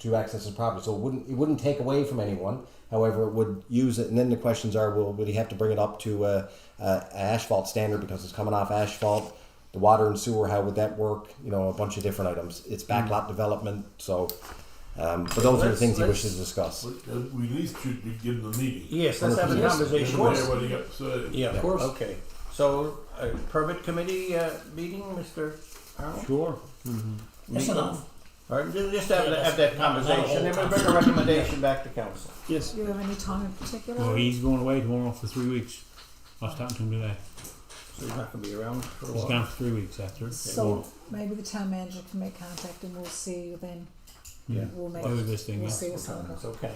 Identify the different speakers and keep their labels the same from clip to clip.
Speaker 1: to access his property. So it wouldn't it wouldn't take away from anyone. However, it would use it. And then the questions are: Will would he have to bring it up to uh, uh, an asphalt standard because it's coming off asphalt? The water and sewer, how would that work? You know, a bunch of different items. It's backlot development, so. Um, but those are the
Speaker 2: Mm. Let's-
Speaker 1: things he
Speaker 2: let's-
Speaker 1: wishes to discuss.
Speaker 3: But uh, we at least should be given the meeting.
Speaker 2: Yes, let's have a
Speaker 1: Yes,
Speaker 3: Yes,
Speaker 2: conversation.
Speaker 3: what he got to say.
Speaker 2: Yeah,
Speaker 1: Of
Speaker 2: of
Speaker 1: course.
Speaker 2: course. Okay. So, a permit committee uh, meeting, Mr. Arnold?
Speaker 1: Sure.
Speaker 4: That's enough.
Speaker 2: All right, ju- just have,
Speaker 4: Yeah,
Speaker 2: that- have
Speaker 4: that's
Speaker 2: that
Speaker 4: not- not a
Speaker 2: conversation,
Speaker 4: whole
Speaker 2: and we'll bring a recommendation back to council.
Speaker 5: Yes.
Speaker 6: Do you have any time in particular?
Speaker 5: Well, he's going away tomorrow for three weeks. I was talking to him today.
Speaker 2: So he's not gonna be around for a
Speaker 5: He's
Speaker 2: while.
Speaker 5: gone for three weeks after.
Speaker 6: so maybe the town manager can make contact and we'll see then.
Speaker 5: Yeah.
Speaker 6: We'll make
Speaker 5: Do this thing.
Speaker 6: we'll
Speaker 5: yeah.
Speaker 6: see what's going on.
Speaker 2: It's okay.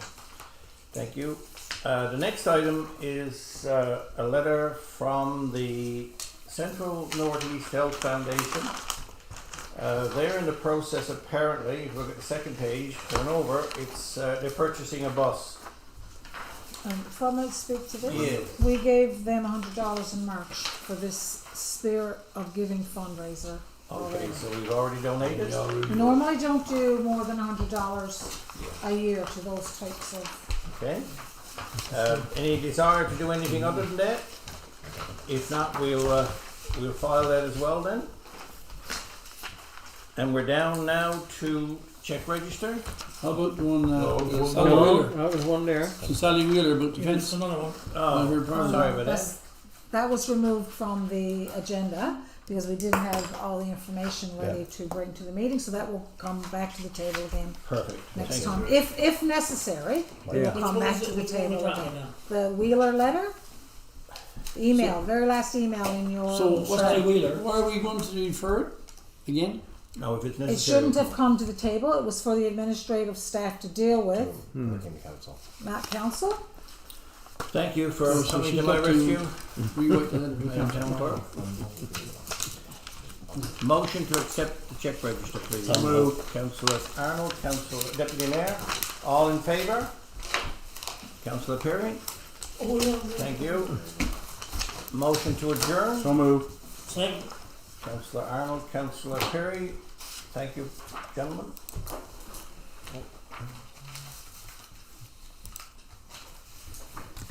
Speaker 2: Thank you. Uh, the next item is, uh, a letter from the Central Northeast Health Foundation. Uh, they're in the process apparently, if you look at the second page, turn over, it's, uh, they're purchasing a bus.
Speaker 6: Um, if I might speak to this,
Speaker 2: Yeah.
Speaker 6: we gave them hundred dollars in March for this Spirit of Giving fundraiser.
Speaker 2: Okay,
Speaker 6: already.
Speaker 2: so we've already donated?
Speaker 6: We normally don't do more than hundred dollars a year to those types of.
Speaker 2: Okay. Uh, any desire to do anything other than that? If not, we'll, uh, we'll file that as well then. And we're down now to check register.
Speaker 7: How about the one? Uh,
Speaker 3: No,
Speaker 7: yes,
Speaker 6: Oh,
Speaker 3: one
Speaker 7: Sally
Speaker 3: more.
Speaker 7: Wheeler?
Speaker 5: That was Oh, one there.
Speaker 7: So Sally Wheeler about the
Speaker 4: Yeah, that's
Speaker 7: fence.
Speaker 4: another one.
Speaker 7: I
Speaker 2: Oh,
Speaker 7: heard part
Speaker 2: sorry
Speaker 7: of that.
Speaker 2: about that.
Speaker 6: That's- That was removed from the agenda because we didn't have all the information ready to bring to the meeting, so that will come back to the table again
Speaker 2: Perfect.
Speaker 6: next
Speaker 2: Thank
Speaker 6: time, if, if necessary.
Speaker 1: Yeah.
Speaker 4: Which
Speaker 6: Come
Speaker 4: one
Speaker 6: back
Speaker 4: is
Speaker 6: to
Speaker 4: it?
Speaker 6: the
Speaker 4: Which one are we
Speaker 6: table
Speaker 4: talking
Speaker 6: again.
Speaker 4: now?
Speaker 6: The Wheeler letter, email, very last email in your.
Speaker 7: So what's
Speaker 6: Oh, Sorry.
Speaker 7: Sally Wheeler? Why are we going to defer it again?
Speaker 2: you. No, if it's necessary.
Speaker 6: It shouldn't have come to the table, it was for the administrative staff to deal with,
Speaker 1: Came to council.
Speaker 6: not council.
Speaker 2: Thank you for
Speaker 7: So
Speaker 2: coming
Speaker 7: she's
Speaker 2: to my
Speaker 7: got to-
Speaker 2: rescue.
Speaker 7: Rewrite the
Speaker 2: Town clerk. Motion to accept the check register, please.
Speaker 4: So
Speaker 2: Move. Councillor Arnold, Councillor Deputy Mayor, all in favour? Councillor Perry?
Speaker 4: Oh, yeah.
Speaker 2: Thank you. Motion to adjourn.
Speaker 5: So move.
Speaker 4: Second.
Speaker 2: Councillor Arnold, Councillor Perry, thank you, gentlemen.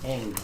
Speaker 2: End.